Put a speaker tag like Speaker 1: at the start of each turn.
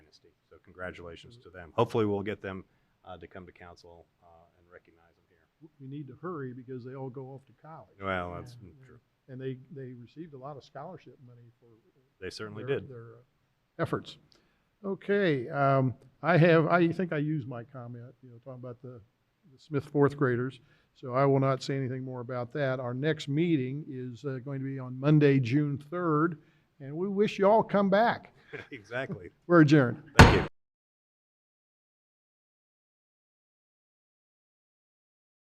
Speaker 1: dynasty. So congratulations to them. Hopefully, we'll get them uh, to come to council uh, and recognize them here.
Speaker 2: we need to hurry because they all go off to college.
Speaker 1: Well, that's
Speaker 2: And-
Speaker 1: true.
Speaker 2: And they, they received a lot of scholarship money for.
Speaker 1: They certainly
Speaker 2: their-
Speaker 1: did.
Speaker 2: Their uh, efforts. Okay, um, I have, I think I used my comment, you know, talking about the the Smith fourth graders. So I will not say anything more about that. Our next meeting is uh, going to be on Monday, June third, and we wish you all come back.
Speaker 1: exactly.
Speaker 2: We're adjourned.
Speaker 1: Thank you.